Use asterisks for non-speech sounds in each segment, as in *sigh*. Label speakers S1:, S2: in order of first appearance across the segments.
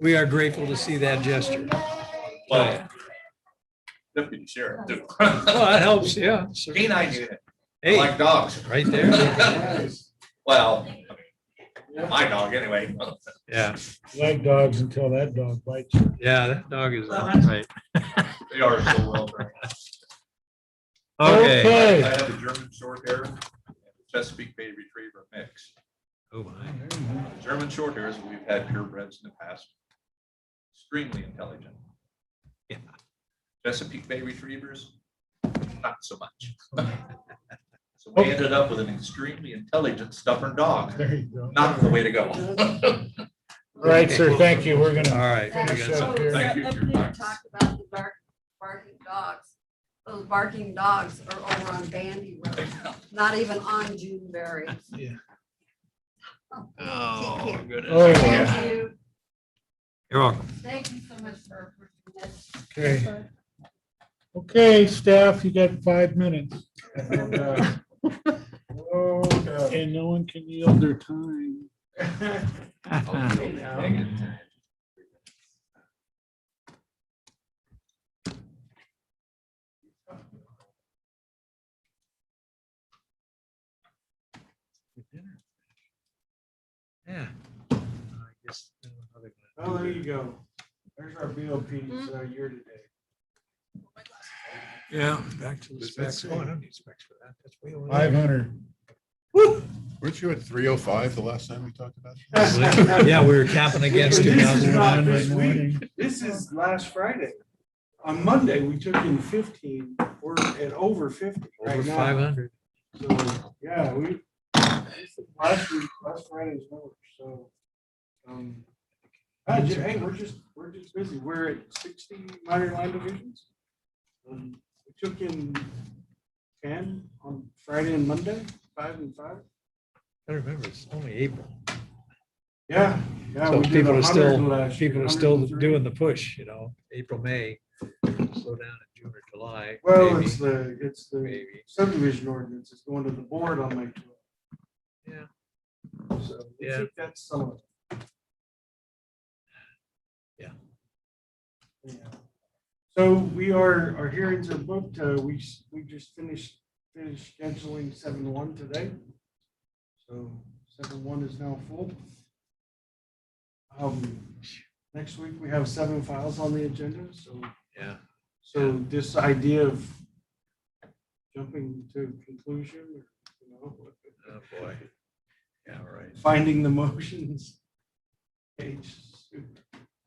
S1: We are grateful to see that gesture.
S2: Well, Deputy sheriff. too.
S1: *laughs* Oh, that helps, yeah. sure.
S2: He and I do that,
S1: Hey,
S2: like dogs.
S1: right there.
S2: Well, my dog anyway.
S1: Yeah,
S3: Like dogs until that dog bites *laughs* you.
S1: yeah, that dog is,
S4: Right.
S2: They are so well trained.
S4: Okay.
S2: I
S3: Okay.
S2: have a German short hair, and a Chesapeake Bay Retriever mix.
S1: oh my.
S2: The German short hairs, we've had purebreds in the past. Extremely intelligent.
S1: Yeah.
S2: Chesapeake Bay Retrievers, not so much. *laughs* So we ended up with an extremely intelligent stubborn dog.
S3: There you go.
S2: Not the way to go. *laughs*
S3: All right, sir, thank you. We're
S1: All
S3: gonna,
S1: right. we got
S3: Finish
S1: some-
S3: up here.
S2: Thank you for your time.
S5: Talk about the bark, barking dogs. Those barking dogs are over on Bandy Road, not even on Juneberry.
S4: Oh,
S3: oh,
S4: goodness.
S3: yeah,
S5: Thank you,
S1: You're welcome.
S5: thank you so much for. for
S3: okay.
S5: this.
S3: Okay, staff, you got five minutes. *laughs* And no one can yield their time.
S1: Yeah. I guess another
S6: Oh, there you go. There's our BOPs uh, year to date.
S1: Yeah, back to the
S7: Does that
S1: specs.
S7: say-
S1: Oh, I don't need specs for that. That's way over
S3: Five
S1: there.
S3: hundred.
S7: Weren't you at three oh five the last time we talked about? it?
S3: *laughs*
S1: Yeah, we were capping against
S6: This
S1: two
S6: is
S1: thousand.
S6: not this week. This is last Friday. On Monday, we took in fifteen. We're at over fifty
S1: Over
S6: right
S1: five
S6: now.
S1: hundred.
S6: So, yeah, we, this is last week, last Friday's number, so. um, ah, ju- Hey, we're just, we're just busy. We're at sixty minor line divisions. Um, We took in ten on Friday and Monday, five and five.
S1: I remember, it's only April.
S6: Yeah, yeah.
S1: So
S6: we did
S1: people are still,
S6: 100 last year,
S1: people are still
S6: 103.
S1: doing the push, you know, April, May, slow down in June or July.
S6: Well,
S1: maybe,
S6: it's the, it's the
S1: Maybe.
S6: subdivision ordinance, it's going to the board on May twelfth.
S1: Yeah.
S6: So, I
S1: Yeah.
S6: think that's some of it.
S1: Yeah.
S6: Yeah. So we are, our hearings are booked, uh, we, s- we just finished, finished scheduling seven one today. So seven one is now full. Um, next week, we have seven files on the agenda, so
S1: Yeah.
S6: so this idea of jumping to conclusion, or, you know,
S1: Oh, boy. Yeah, right.
S6: finding the motions. page,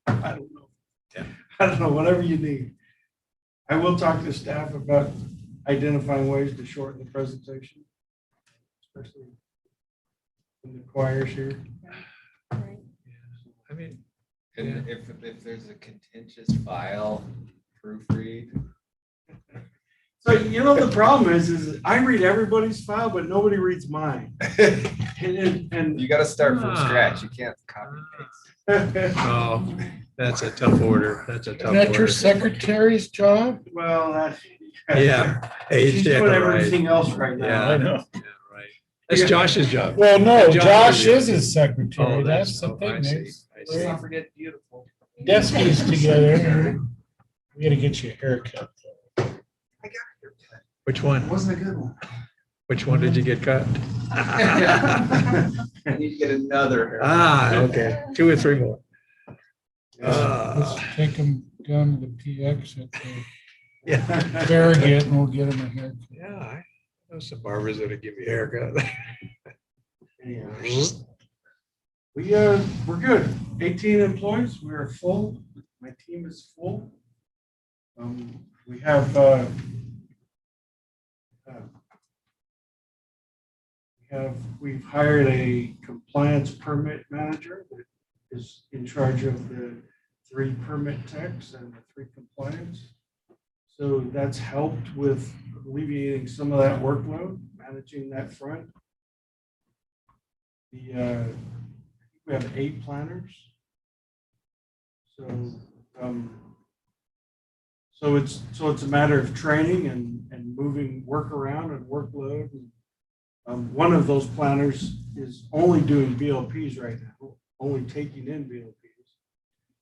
S6: I don't know.
S1: Yeah.
S6: I don't know, whatever you need. I will talk to staff about identifying ways to shorten the presentation. Especially when the choir's here.
S1: I mean,
S8: And if, if there's a contentious file, proofread. *laughs*
S6: So you know, the problem is, is I read everybody's file, but nobody reads mine. *laughs* And- And, and *laughs*
S8: You gotta start from
S1: Ah.
S8: scratch. You can't copy
S1: oh, that's a tough order. That's a tough
S3: Isn't that your
S1: order.
S3: secretary's job?
S6: Well, that.
S1: Yeah. Hey,
S6: She's
S1: yeah,
S6: doing
S1: right.
S6: everything else right now.
S1: Yeah,
S3: know.
S1: yeah, Oh, right. That's Josh's job.
S3: Well, no,
S1: Josh is-
S3: Josh is his
S1: Oh,
S3: secretary. That's the
S1: oh, I see,
S3: thing. They-
S1: I
S8: Let's
S1: see.
S8: not forget beautiful.
S3: Deskies together. We gotta get you a haircut.
S1: Which one?
S6: Wasn't a good
S1: *laughs*
S6: *laughs* one.
S1: Which one did you get *laughs* cut?
S8: I need to get another.
S1: Ah, okay. Two or three more.
S3: Let's
S1: Ah,
S3: take him down to the PX at the
S1: Yeah,
S3: Farragut and we'll get him a haircut.
S1: yeah. I know some barbers that'd give you a *laughs* haircut.
S6: We, uh, we're good. Eighteen employees, we are full. My team is full. Um, we have, uh, uh, we have, we've hired a compliance permit manager that is in charge of the three permit techs and the three compliance. So that's helped with alleviating some of that workload, managing that front. The, uh, we have eight planners. So, um, so it's, so it's a matter of training and, and moving work around and workload. Um, one of those planners is only doing BLPs right now, only taking in BLPs.